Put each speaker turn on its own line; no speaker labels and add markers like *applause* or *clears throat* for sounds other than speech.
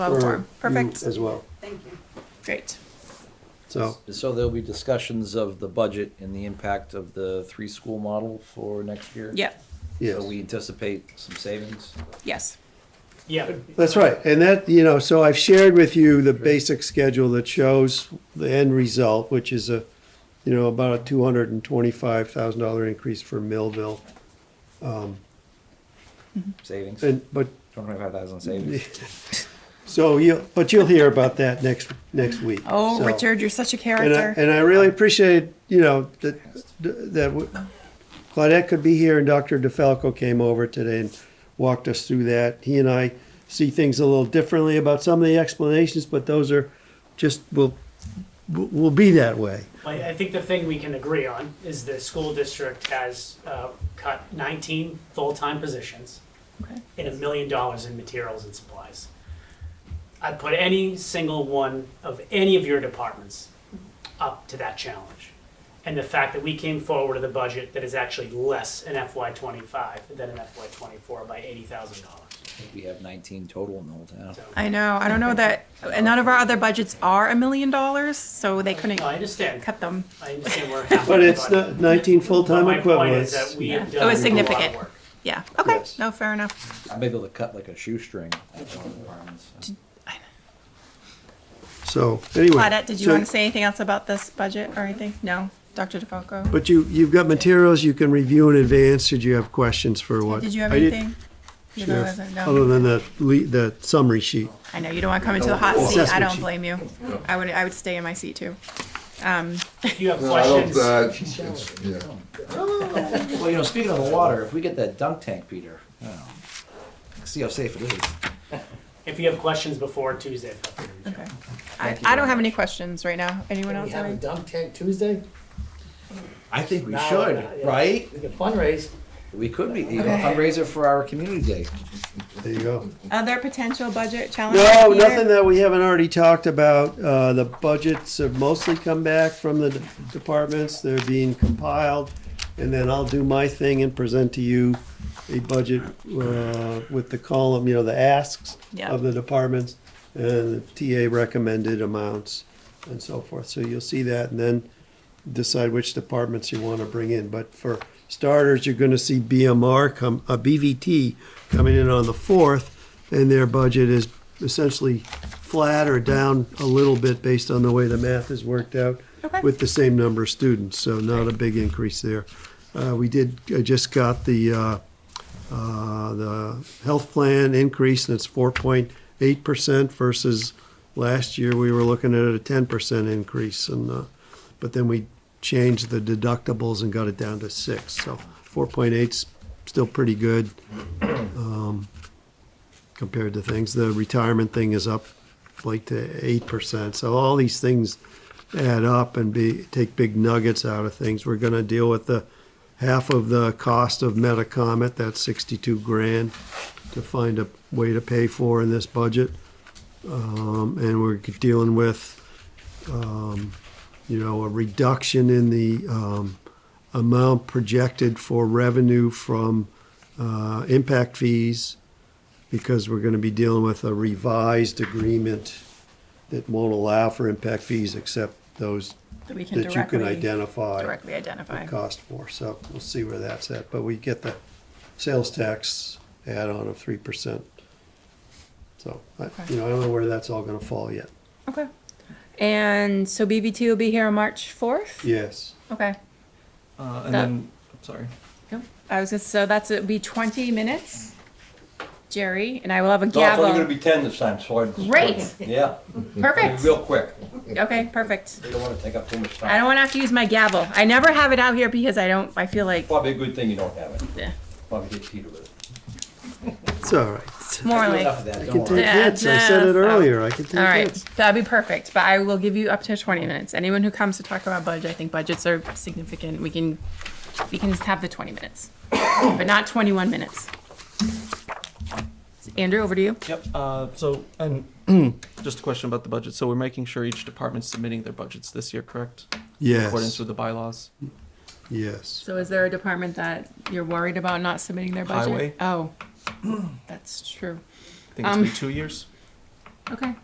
Well,
for
form.
you
Perfect.
As well.
Thank you.
Great.
So,
So there'll be discussions of the budget and the impact of the three-school model for next year?
Yeah.
yes.
So we anticipate some savings?
Yes.
Yeah.
That's right. And that, you know, so I've shared with you the basic schedule that shows the end result, which is a, you know, about a two hundred and twenty-five thousand dollar increase for Millville.
Savings?
And, but,
Twenty-five thousand savings?
so you, but you'll hear about that next, next week.
Oh,
So-
Richard, you're such a
And I,
character.
and I really appreciated, you know, that, that w- Claudette could be here and Dr. DeFalco came over today and walked us through that. He and I see things a little differently about some of the explanations, but those are just, will, will be that way.
I, I think the thing we can agree on is the school district has, uh, cut nineteen full-time positions
Okay.
and a million dollars in materials and supplies. I'd put any single one of any of your departments up to that challenge. And the fact that we came forward with a budget that is actually less in FY twenty-five than in FY twenty-four by eighty thousand dollars.
We have nineteen total in the whole town.
So,
I know. I don't know that and none of our other budgets are a million dollars, so they couldn't
I understand,
cut them.
I
*laughs*
understand we're. half
But
the
it's
budget.
not nineteen full-time
But My point is
equivalents.
that we
Yeah.
have
It
done
was
a lot of
significant.
work.
Yeah. Okay.
Yes.
No, fair enough.
I'm able to cut like a shoestring at one of the departments.
So, anyway.
Claudette, did you
so-
want to say anything else about this budget or anything? No, Dr. DeFalco.
But you, you've got materials you can review in advance, should you have questions for what?
Did you have
I did-
anything? You
should
know,
have,
as a-
Other
no.
than the, le- the summary sheet.
I know you don't want to come into the hot seat. I
Assessment
don't
sheet.
blame you. I would. I would stay in my seat too.
If you have
No, I don't,
questions,
uh, it's- yeah.
Well, you know, speaking of the water, if we get that dunk tank, Peter, oh, see how safe it is.
if you have questions before Tuesday, feel free to reach
Okay.
out.
I,
Thank you
I
very
don't have
much.
any questions right now.
Can
Anyone else?
we have
have
a
any?
dunk tank Tuesday?
I think we
No,
should,
no, yeah.
right?
We can fundraise.
We could be, you know, fundraiser for our community day.
There you go.
Other potential budget challenges?
No,
Peter?
nothing that we haven't already talked about. Uh, the budgets have mostly come back from the de- departments. They're being compiled. And then I'll do my thing and present to you a budget, uh, with the column, you know, the asks
Yeah.
of the departments and the TA recommended amounts and so forth. So you'll see that and then decide which departments you want to bring in. But for starters, you're going to see BMR come, uh, a BVT coming in on the fourth, and their budget is essentially flat or down a little bit based on the way the math is worked out
Okay.
with the same number of students, so not a big increase there. Uh, we did, I just got the, uh, uh, the health plan increase, and it's four point eight percent versus last year, we were looking at a ten percent increase, and, uh, but then we changed the deductibles and got it down to six, so four point eight's still pretty good, um, compared to things. The retirement thing is up like to eight percent, so all these things add up and be, take big nuggets out of things. We're gonna deal with the, half of the cost of Metacomet, that's sixty-two grand, to find a way to pay for in this budget. Um, and we're dealing with, um, you know, a reduction in the, um, amount projected for revenue from, uh, impact fees, because we're gonna be dealing with a revised agreement that won't allow for impact fees except those
That we can
that you can
directly,
identify
directly identify.
the cost for, so we'll see where that's at, but we get the sales tax add-on of three percent. So, I, you know, I don't know where that's all gonna fall yet,
Okay. And so BBT will be here on March fourth?
yes.
Okay.
Uh, and
That-
then, sorry.
I was just, so that's, it'll be twenty minutes, Jerry, and I will have a
No, it's only gonna
gavel.
be ten this time, so I.
Great,
Yeah,
perfect.
real quick.
Okay, perfect.
We don't wanna take up too much
I
time.
don't wanna have to use my gavel. I never have it out here because I don't, I feel like, eh,
Probably a good thing you don't have it.
Yeah.
Probably hit Peter with it.
It's all right,
it's
*laughs*
more like,
Enough
all
of that,
I
don't
can
worry.
take
Yeah,
hits, I said it
no,
earlier, I can take
right,
hits.
that'd be perfect, but I will give you up to twenty minutes. Anyone who comes to talk about budget, I think budgets are significant. We can, we can just have the twenty minutes, but not twenty-one minutes. Andrew, over to you.
Yep. Uh, so, *clears throat* and just a question about the budget. So, we're making sure each department's submitting their budgets this year, correct? In accordance
Yes,
with the bylaws.
yes,
So is there a department that you're worried about not submitting their budget?
Highway.
Oh, *clears throat* that's true.
I think it's
Um,
been two years.
Okay.